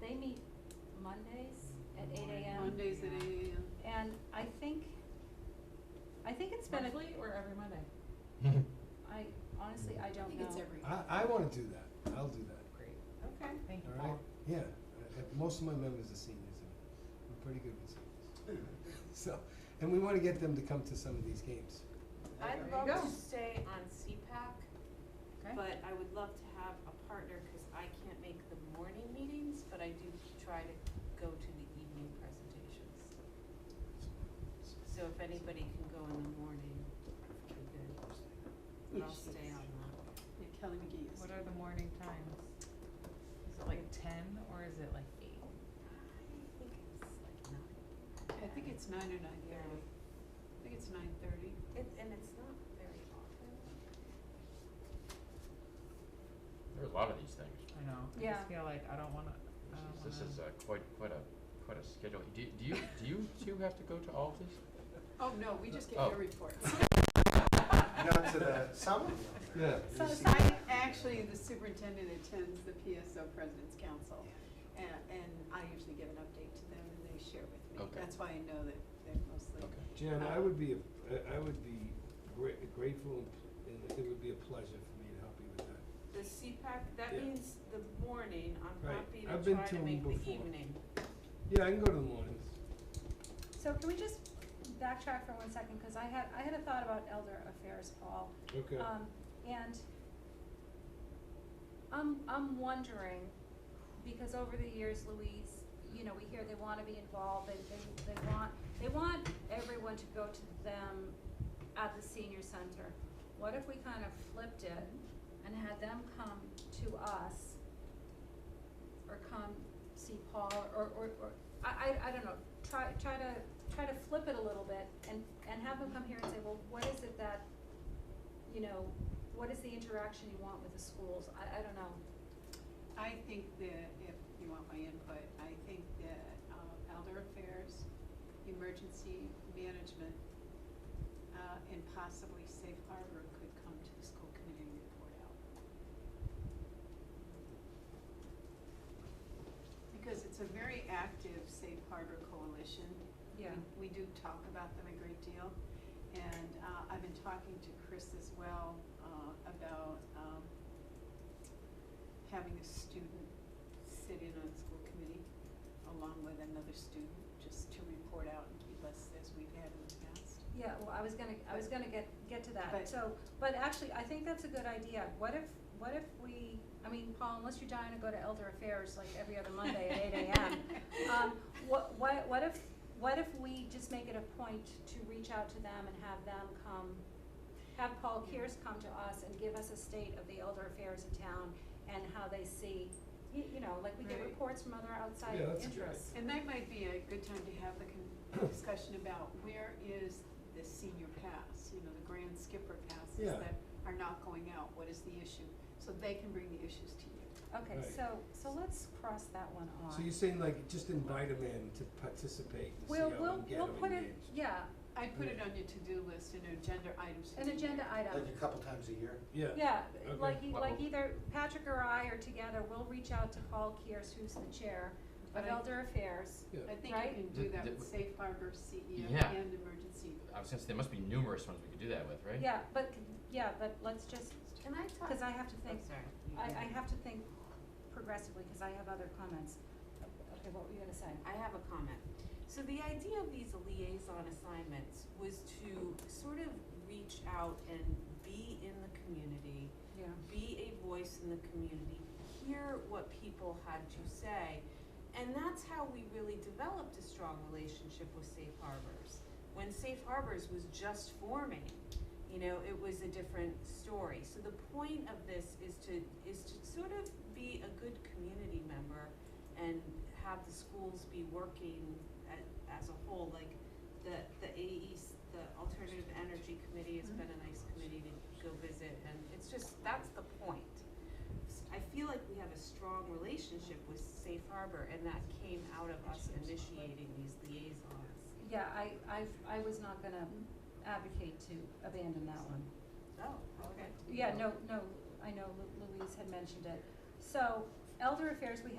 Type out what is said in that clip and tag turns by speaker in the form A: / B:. A: they meet Mondays at eight AM.
B: Mondays at
C: Yeah.
B: eight AM.
A: And I think, I think it's been a,
D: Monthly or every Monday?
A: I honestly, I
B: I
A: don't
B: think
A: know.
B: it's every.
E: I, I wanna do that, I'll do that,
D: Great.
C: Okay.
D: Thank you,
E: all
D: Paul.
E: right? Yeah, I- I- most of my members are seniors, and we're pretty good with seniors. So, and we wanna get them to come to some of these games.
C: I'd
D: you
C: love
D: go.
C: to stay on CPAC,
D: Okay.
C: but I would love to have a partner, cause I can't make the morning meetings, but I do try to go to the evening presentations. So if anybody can go in the morning, it'd be good, but I'll stay on that.
B: Yeah, Kelly McGee is.
D: What are the morning times? Is it like ten or is it like eight?
C: I think it's like nine,
B: I think it's nine or nine
C: Yeah.
B: thirty. I think it's nine thirty.
C: it, and it's not very often.
F: There are a lot of these things.
D: I know, I
A: Yeah.
D: just feel like I don't wanna, I
C: Oh,
D: don't wanna.
F: This is, this is uh, quite, quite a, quite a schedule. Do, do you, do you two have to go to all of these?
B: Oh, no, we just get
F: Oh.
B: your reports.
G: Not to the, some of them. are.
E: Yeah.
B: So
G: You see-
B: I, actually, the superintendent attends the PSO President's Council, and, and I usually give an update to them and they share with me.
F: Okay.
B: That's why I know that they're mostly.
F: Okay.
E: Jan, I would be, a- I, I would be gra- grateful, and pl- and it would be a pleasure for me to help you with that.
C: The CPAC, that
E: Yeah.
C: means the morning, I'm
E: Right.
C: happy
E: I've
C: to
E: been
C: try
E: to
C: to
E: 'em
C: make the
E: before.
C: evening.
E: Yeah, I can go to the mornings.
A: So can we just backtrack for one second, cause I had, I had a thought about elder affairs, Paul.
E: Okay.
A: Um, and I'm, I'm wondering, because over the years, Louise, you know, we hear they wanna be involved, they, they, they want, they want everyone to go to them at the senior center. What if we kind of flipped it and had them come to us or come see Paul or, or, or, I, I, I don't know, try, try to, try to flip it a little bit and, and have them come here and say, well, what is it that, you know, what is the interaction you want with the schools? I, I don't know.
B: I think that, if you want my input, I think that uh, elder affairs, emergency management, uh, and possibly safe harbor could come to the school committee and report out. Because it's a very active safe harbor coalition. We-
A: Yeah.
B: We do talk about them a great deal. And uh, I've been talking to Chris as well uh, about um, having a student sit in on school committee along with another student, just to report out and keep us as we've had in the past.
A: Yeah, well, I was gonna, I was gonna get, get to that,
B: But-
A: so, but actually, I think that's a good idea. What if, what if we, I mean, Paul, unless you're dying to go to elder affairs like every other Monday at eight AM, um, what, what, what if, what if we just make it a point to reach out to them and have them come, have Paul Kears come to us and give us a state of the elder affairs in town and how they see, you, you know, like we get
B: Right.
A: reports from other outside
E: Yeah, that's
A: interests.
E: a good
B: And that might be a good time to have the con- discussion about where is the senior pass, you know, the grand skipper passes
E: Yeah.
B: that are not going out, what is the issue? So they can bring the issues to you.
A: Okay,
E: Right.
A: so, so let's cross that one off.
E: So you're saying like, just invite them in to participate and see how
A: We'll,
E: we can
A: we'll,
E: get
A: we'll
E: them
A: put it,
E: engaged.
A: yeah,
B: I put it on your to-do list in agenda items. for
A: an
B: the
A: agenda
B: year.
A: item.
G: Like a couple times a year.
E: Yeah.
A: Yeah,
E: Okay.
A: like, e- like
F: Well-
A: either Patrick or I or together, we'll reach out to Paul Kears, who's the chair of
B: But I-
A: Elder Affairs.
E: Yeah.
B: I think
A: Right?
B: you can do that
F: Th-
B: with safe harbor, CEO,
F: Yeah.
B: and emergency.
F: I was gonna say, there must be numerous ones we could do that with, right?
A: Yeah, but, yeah, but let's just,
C: Can I talk?
A: cause I have to
C: I'm
A: think,
C: sorry. you
A: I,
C: go.
A: I have to think progressively, cause I have other comments. Okay, what were you gonna say?
C: I have a comment. So the idea of these liaison assignments was to sort of reach out and be in the community,
A: Yeah,
C: be a voice in the community, hear what people had to say. And that's how we really developed a strong relationship with Safe Harbors. When Safe Harbors was just forming, you know, it was a different story. So the point of this is to, is to sort of be a good community member and have the schools be working a as a whole, like the, the AEs, the Alternative Energy Committee has been a nice committee to go visit, and it's just, that's the point. S- I feel like we have a strong relationship with Safe Harbor, and that came out of us initiating these liaisons.
A: yeah, I, I, I was not gonna advocate to abandon that one.
C: Oh, okay.
A: Yeah, no, no, I know Lu- Louise had mentioned it. So, Elder Affairs, we have